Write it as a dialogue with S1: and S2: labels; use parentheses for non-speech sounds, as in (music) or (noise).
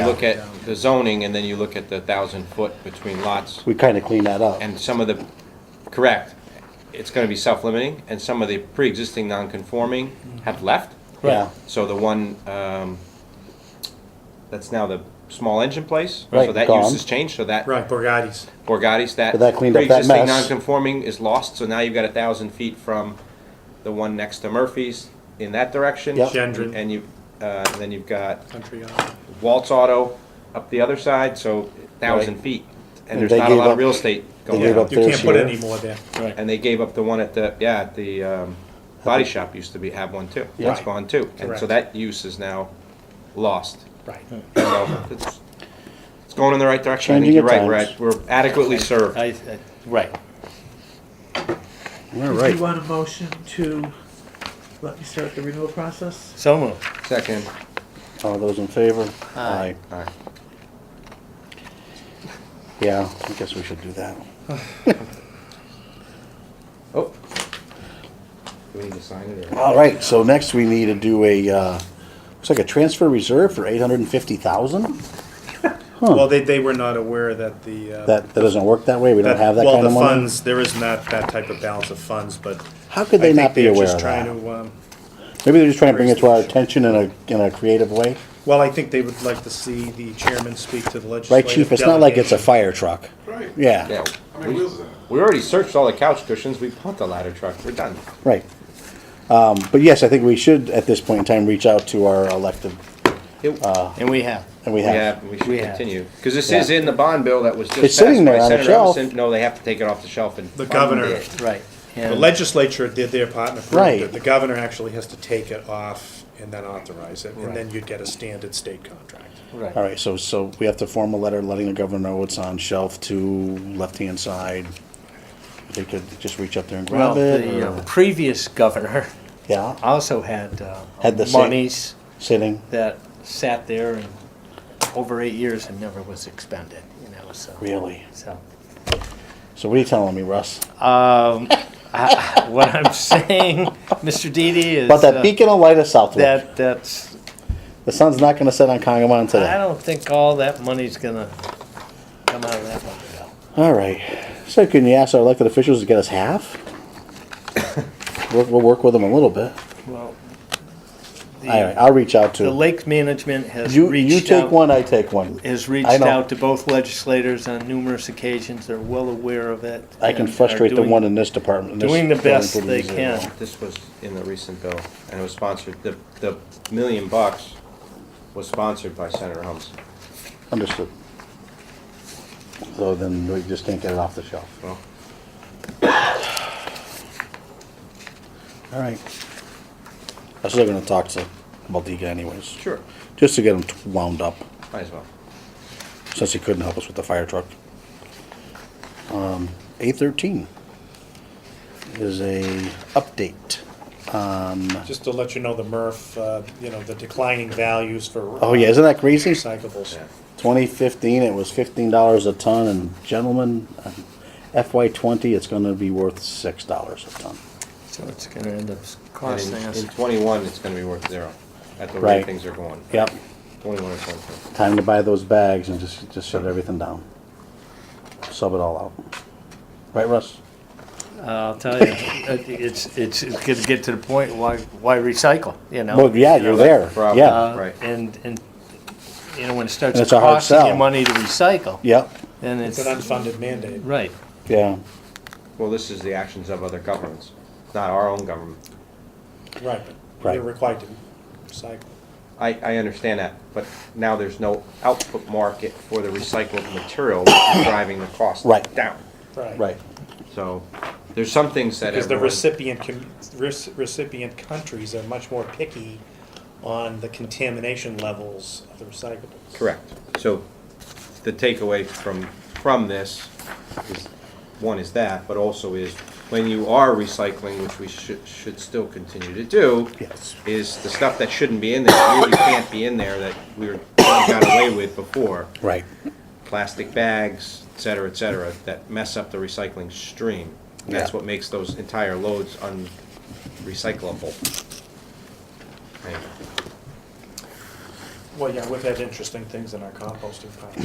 S1: look at the zoning and then you look at the thousand foot between lots.
S2: We kind of clean that up.
S1: And some of the, correct, it's gonna be self-limiting and some of the pre-existing non-conforming have left.
S2: Yeah,
S1: So the one, um, that's now the small engine place. So
S2: Right,
S1: that
S2: gone.
S1: use has changed, so that
S3: Right, Borgatti's.
S1: Borgatti's, that
S2: But that cleaned up that
S1: pre-existing
S2: mess.
S1: non-conforming is lost, so now you've got a thousand feet from the one next to Murphy's in that direction.
S2: Yep.
S3: Gendron.
S1: And you, uh, then you've got
S3: Country uh, Yard.
S1: Waltz Auto up the other side, so thousand
S2: Right.
S1: feet.
S2: And
S1: And there's
S2: they
S1: not a
S2: gave
S1: lot of
S2: up-
S1: real estate
S2: they
S1: going
S2: gave
S1: on.
S2: up
S3: You can't
S2: This
S3: put
S2: year.
S3: any more there.
S1: And they gave up the one at the, yeah, at the, um, body shop used to be, have one too.
S2: Yeah.
S1: That's gone too. And so
S3: Correct.
S1: that use is now lost.
S3: Right.
S1: So It's it's going in the right direction. I
S2: Changing
S1: think you're right.
S2: at
S1: We're
S2: times.
S1: at- We're adequately served.
S4: I, I- right.
S2: all
S5: Do you
S2: right.
S5: want a motion to let me start the renewal process?
S4: So moved.
S1: Second.
S2: All those in favor?
S4: Aye.
S1: All right.
S2: Yeah, I guess we should do that.
S1: Oh. Do we need to sign it or?
S2: All right, so next we need to do a, uh, looks like a transfer reserve for eight hundred and fifty thousand?
S3: Well, they, they were not aware that the. uh,
S2: That, that doesn't work that way, we don't have that
S3: well,
S2: kind of
S3: the
S2: money?
S3: funds, there is not that type of balance of funds, but.
S2: How could
S3: I
S2: they
S3: think
S2: not be
S3: they're
S2: aware
S3: just
S2: of
S3: trying
S2: that?
S3: to, um,
S2: Maybe they're just trying to bring it to our
S3: Raise the issue.
S2: attention in a, in a creative way?
S3: Well, I think they would like to see the chairman speak to the
S2: Right,
S3: legislative.
S2: chief, it's not like it's a
S3: delegation.
S2: fire truck.
S6: Right.
S2: Yeah,
S1: Yeah.
S6: How many wheels is that?
S1: We already searched all the couch cushions. We bought the ladder truck. We're done.
S2: right. Um, but yes, I think we should, at this point in time, reach out to our elected,
S4: And we have.
S2: and
S1: We
S2: we have.
S1: have, we should
S4: We have.
S1: continue. Because this is
S2: Yeah.
S1: in the bond bill that was just
S2: It's
S1: passed
S2: sitting there
S1: by
S2: on the
S1: Senator
S2: shelf.
S1: Emerson. No, they have to take it off the shelf and.
S3: The
S1: fund
S3: governor.
S1: it.
S4: Right.
S3: The
S4: And
S3: legislature did their part and approved
S2: Right.
S3: it. The governor actually has to take it off and then authorize it, and
S4: Right.
S3: then you'd get a standard state contract.
S4: Right.
S2: All right, so, so we have to form a letter letting the governor know it's on shelf two, left-hand side. They could just reach up there and
S4: Well,
S2: grab it,
S4: the uh,
S2: or-
S4: previous governor
S2: yeah,
S4: also had, uh,
S2: Had the same-
S4: monies
S2: sitting,
S4: that sat there and over eight years and never was expended, you know, so.
S2: really.
S4: So,
S2: So what are you telling me, Russ?
S4: um, I- what I'm saying, (laughs) Mr. Didi, is.
S2: About that
S4: uh,
S2: beacon of light of Southwick.
S4: That, that's,
S2: The sun's not gonna set on Congamon
S4: I
S2: today.
S4: don't think all that money's gonna come out of that one,
S2: All right. So can you ask our elected officials to get us half?
S4: (laughs)
S2: We'll, we'll work with them a little bit.
S4: though. Well, the-
S2: All right, I'll reach out
S4: The
S2: to,
S4: lake management has
S2: you, you
S4: reached
S2: take
S4: out,
S2: one, I take one.
S4: has
S2: I
S4: reached
S2: know.
S4: out to both legislators on numerous occasions. They're well aware of it.
S2: I can
S4: and are
S2: frustrate the
S4: doing-
S2: one in this department. this
S4: doing the
S2: building
S4: best
S2: pretty
S4: they
S2: easily.
S4: can.
S1: This was in the recent bill, and it was sponsored, the, the million bucks was sponsored by Senator Helms.
S2: Understood. So then we just can't get it off the shelf.
S1: Well,
S2: All right. I was still gonna talk to Baldiga anyways,
S1: sure,
S2: just to get him wound up,
S1: might as well.
S2: since he couldn't help us with the fire truck. Um, Eight thirteen is a update.
S3: Just to let you know, the MRF, uh, you know, the declining values for.
S2: Oh yeah, isn't that crazy?
S3: Recyclables.
S1: Yeah.
S2: Twenty fifteen, it was fifteen dollars a ton, and gentlemen, FY twenty, it's gonna be worth six dollars a ton.
S4: So it's gonna end up
S1: And
S4: costing
S1: in,
S4: us.
S1: in twenty-one, it's gonna be worth zero, at the
S2: Right.
S1: rate things are going.
S2: Yep.
S1: Twenty-one or twenty-two.
S2: Time to buy those bags and just, just shut everything down. Sub it all out. Right, Russ?
S4: uh, I'll tell you, it- it's, it's, it's gonna get to the point, why, why recycle, you know?
S2: Well, yeah, you're there,
S1: problem.
S2: yeah,
S4: Uh,
S1: Right.
S4: And, and, you know, when it starts
S2: And it's a hard
S4: costing you
S2: sell.
S4: money to recycle,
S2: yep,
S4: then
S3: It's
S4: it's,
S3: an unfunded mandate.
S4: right.
S2: yeah.
S1: Well, this is the actions of other governments, not our own government.
S3: Right, but
S2: Right.
S3: you're required to recycle.
S1: I, I understand that, but now there's no output market for the recycled material, which is driving the cost
S2: Right.
S1: down.
S2: Right,
S1: So, there's some things that
S3: Because the
S1: everyone,
S3: recipient, com- rec- recipient countries are much more picky on the contamination levels of the recyclables.
S1: correct. So, the takeaway from, from this is, one is that, but also is, when you are recycling, which we should, should still continue to do,
S2: yes.
S1: is the stuff that shouldn't be in there, really can't be in there, that we were, got away with before.
S2: Right,
S1: plastic bags, et cetera, et cetera, that mess up the recycling stream. And That's
S2: Yeah.
S1: what makes those entire loads unrecyclable. Anyway,
S3: Well, yeah, we've had interesting things in our composting pile.